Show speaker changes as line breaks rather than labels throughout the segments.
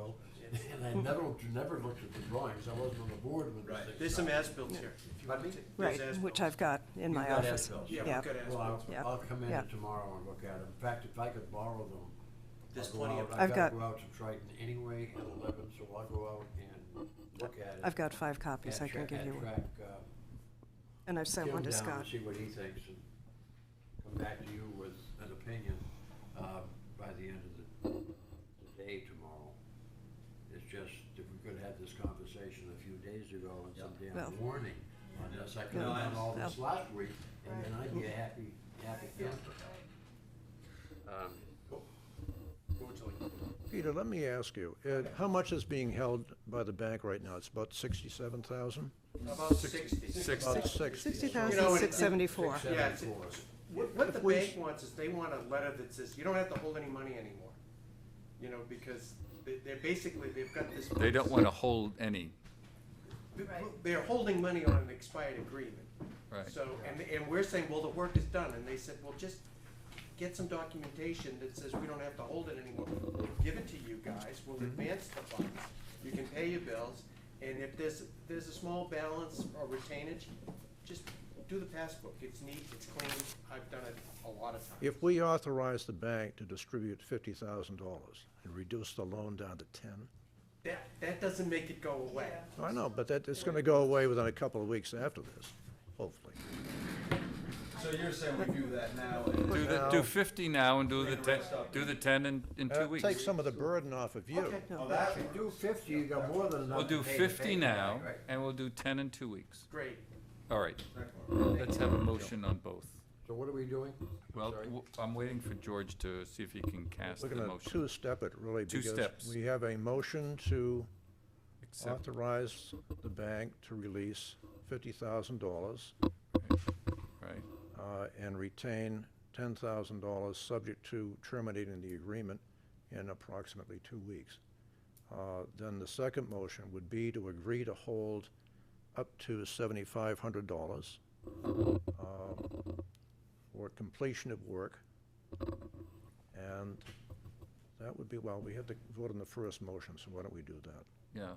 And I never, never looked at the drawings, I wasn't on the board when this
Right,
thing.
there's some
started.
as-built here. if you
Pardon
want
me?
to.
Right,
There's
which
as-bills.
I've got in
You've
my
got
office.
as-bills.
Yeah,
yeah.
we've got
Well, I'll,
as-bills.
Yeah.
I'll come in
Yeah.
tomorrow and look at them. In fact, if I could borrow them, I'll
There's
go
plenty
out-
of,
I've
I've
got-
gotta go out to Triton anyway at eleven, so I'll go out and look at it.
I've got five copies I
and
can
tra-
give
and
you, one.
track, uh,
and I've sent
Jim
one to
down
Scott.
and See what he thinks and come back to you with an opinion, uh, by the end of the, the day tomorrow. It's just, if we could have this conversation a few days ago and some
Well-
damn warning on this, I could have
No,
I
done all this
understand.
last week, and then I'd be a happy, happy camper. Um,
Go to it.
Peter, let me ask you, uh, how much is being held by the bank right now? It's about sixty-seven thousand?
about sixty.
About sixty.
Sixty
You know,
thousand
it-
six seventy-four.
Six
Yeah, it's-
seventy-four.
What, what the
If we-
bank wants is they want a letter that says, you don't have to hold any money anymore. You know, because they, they're basically, they've got this.
They don't want to hold any,
They're holding money on an expired agreement.
right?
So, and, and we're saying, well, the work is done, and they said, well, just get some documentation that says we don't have to hold it anymore. We'll Give it to you guys, we'll advance the funds, you can pay your bills, and if there's, there's a small balance or retainage, just do the passbook, it's neat, it's clean, I've done it a lot of times.
If we authorize the bank to distribute fifty thousand dollars and reduce the loan down to ten,
That, that doesn't make it go away.
I know, but that, it's gonna go away within a couple of weeks after this, hopefully.
So you're saying we do that now and
Do the, do fifty now and do the ten, do the ten in, in
Uh,
two weeks.
Take some of the burden off of you.
Oh, that
If you do fifty, you got more than enough.
We'll do
to pay the
fifty
bank,
now
right?
and we'll do ten in two weeks.
Great,
All right,
works.
let's have a motion on both.
So what are we doing?
Well,
Sorry.
w- I'm waiting for George to see if he can cast
We're
the
gonna
motion.
two-step it really
Two steps.
because we have a motion to
Except-
authorize the bank to release fifty thousand dollars
Right,
uh, and retain ten thousand dollars, subject to terminating the agreement in approximately two weeks. Uh, Then the second motion would be to agree to hold up to seventy-five hundred dollars uh, for completion of work. And that would be, well, we had to vote on the first motion, so why don't we do that?
yeah,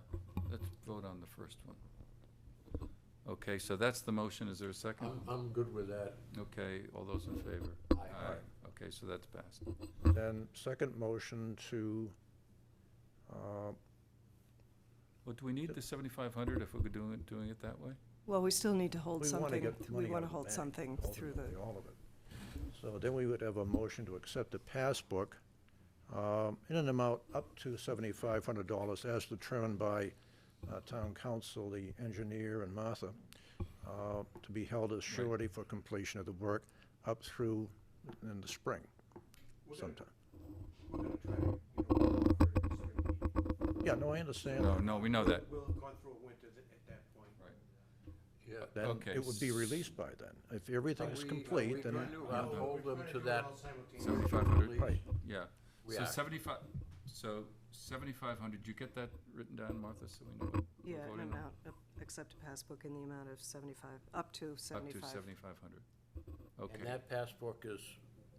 let's vote on the first one. Okay, so that's the motion, is there a second?
I'm, I'm good with that.
Okay, all those in favor?
Um, uh, Aye.
Okay, so that's passed.
Then second motion to, uh,
Well, do we need the seventy-five hundred if we're doing it, doing it that way?
Well, we still need to hold
We wanna
something,
get the
we
money out
want to
of the
hold
bank,
something through
ultimately,
the,
All of it. So then we would have a motion to accept the passbook um, in an amount up to seventy-five hundred dollars as determined by uh, town council, the engineer, and Martha, uh, to be held as surety for completion of the work up through in the spring sometime.
we're gonna try to, you know,
Yeah, no, I understand.
No,
that.
no, we know that.
we'll have gone through a winter th- at that point.
Yeah.
Then
Okay,
it would be released by then. If everything is
Are we- are we
complete, then.
going to Hold them to that.
Seventy-five hundred?
Right.
Yeah,
We
so
are.
seventy-five, so seventy-five hundred, you get that written down, Martha, so we know what we're
yeah, an
voting on?
amount, uh, accept a passbook in the amount of seventy-five, up to
Up to
seventy-five.
seventy-five hundred.
And
Okay,
that passbook is,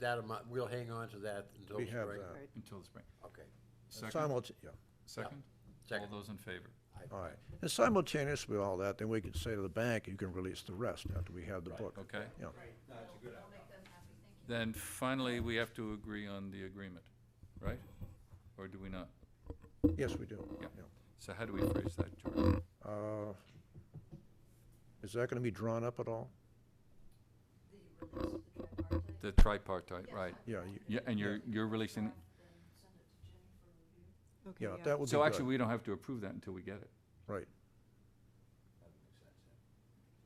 that amount, we'll hang on to that until
We
spring.
have that.
Right.
until the spring.
Okay,
Second,
Simulta- yeah.
second? All
second.
those in favor?
All right. And simultaneous with all that, then we can say to the bank, you can release the rest after we have the book.
Okay,
Yeah.
That's a good idea.
then finally, we have to agree on the agreement, right? Or do we not?
Yes, we do.
Yeah.
Yeah.
So how do we phrase that, George?
Uh, Is that going to be drawn up at all?
The tripartite, right?
Yeah, you-
Yeah, and you're, you're releasing, it.
Okay,
yeah, that would be
so actually,
good.
we don't have to approve that until we get it.
Right.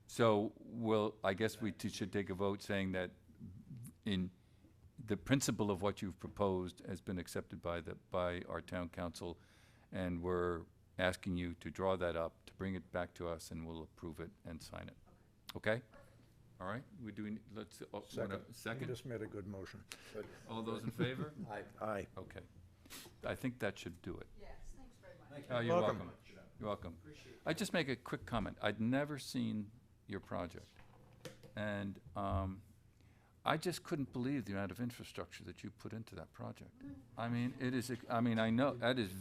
So, well, I guess we t- should take a vote saying that in, the principle of what you've proposed has been accepted by the, by our town council, and we're asking you to draw that up, to bring it back to us, and we'll approve it and sign it. Okay? All right, we do, we- let's, uh, wanna-
You
second?
just made a good motion.
Good.
All those in favor?
Aye.
Aye.
Okay. I think that should do it.
Yes, thanks very much.
Oh, you're
Welcome.
welcome. You're welcome. I just make a quick comment. I'd never seen your project. And um, I just couldn't
Mm.
believe the amount of infrastructure that you put into that project. I mean, it is, ex- I mean, I know, that is